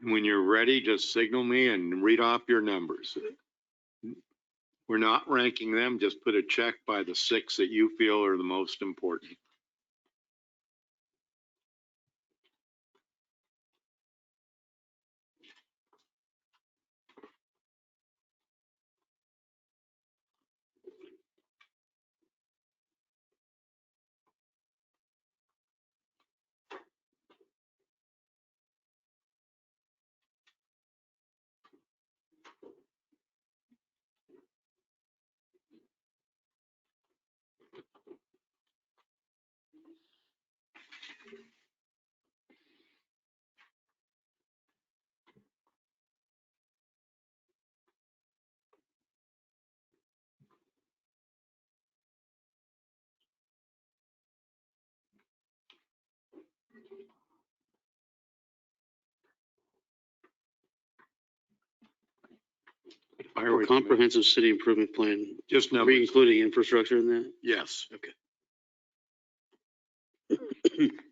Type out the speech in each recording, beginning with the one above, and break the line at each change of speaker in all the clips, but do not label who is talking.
When you're ready, just signal me and read off your numbers. We're not ranking them, just put a check by the six that you feel are the most important. Fire away,
A comprehensive city improvement plan,
Just
are we
numbers,
including infrastructure in that?
yes.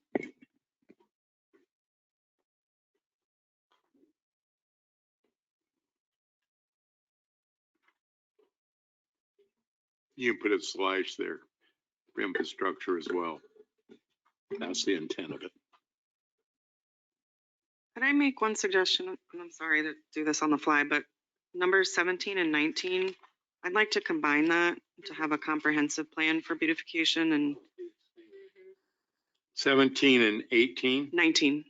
You can put a slash there for infrastructure as well. That's the intent of it.
Could I make one suggestion? And I'm sorry to do this on the fly, but numbers 17 and 19, I'd like to combine that to have a comprehensive plan for beautification and
17 and 18,
19.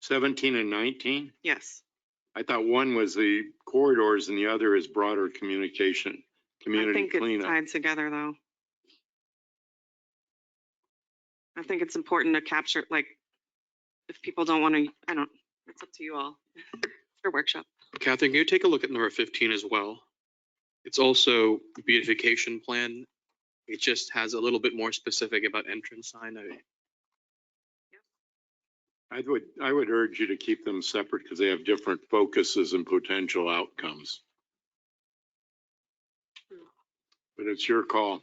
17 and 19?
Yes.
I thought one was the corridors and the other is broader communication,
I
community
think it's
cleanup.
tied together, though. I think it's important to capture, like, if people don't want to, I don't, it's up to you all. It's Your workshop.
Catherine, can you take a look at number fifteen as well? It's also beautification plan. It just has a little bit more specific about entrance sign. I-
I would, I would urge you to keep them separate because they have different focuses and potential outcomes. But it's your call.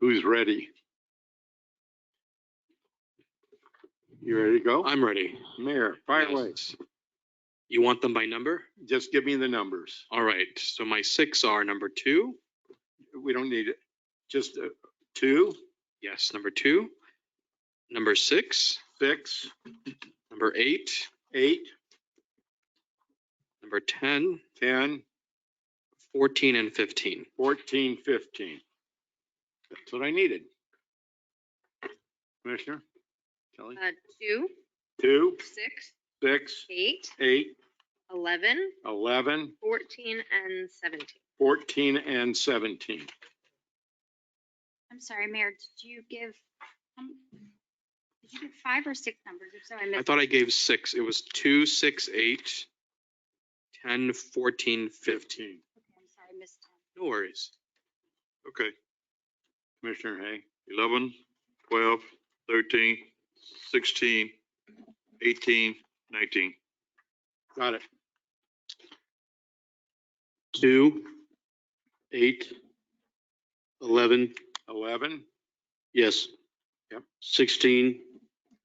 Who's ready? You ready to go?
I'm ready.
Mayor, fire away.
Yes. You want them by number?
Just give me the numbers.
All right, so my six are number two,
We don't need it. Just uh, two,
yes, number two, number six,
six,
number eight,
eight,
number 10,
10,
14, and fifteen.
Fourteen, fifteen. That's what I needed. Commissioner? Kelly?
Uh, two,
Two,
six,
six,
eight,
eight,
eleven,
eleven,
fourteen, and seventeen.
fourteen, and seventeen.
I'm sorry, Mayor, did you give, um, did you give five or six numbers? If so, I
I
missed.
thought I gave six. It was two, six, eight, 10, 14, 15.
Fifteen.
okay, I'm sorry, I missed. them.
No worries.
Okay,
Commissioner Hay?
11, 12, 13, 16, 18, 19.
Got it.
Two, eight, 11,
Eleven?
yes.
Yep.
16.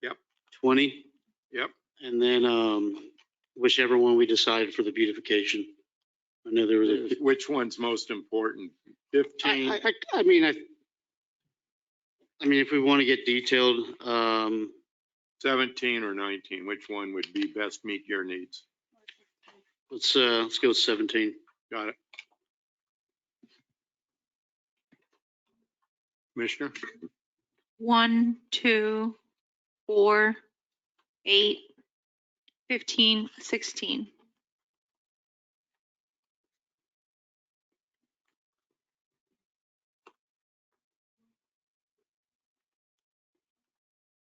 Yep.
20.
Yep.
And then um, whichever one we decided for the beautification. I know there was a
Which one's most important?
I,
Fifteen?
I, I- I mean, I, I mean, if we want to get detailed, um,
17 or 19, which one would be best meet your needs?
let's, uh, let's go with 17.
Got it. Commissioner,
one, two, four, eight, fifteen, sixteen.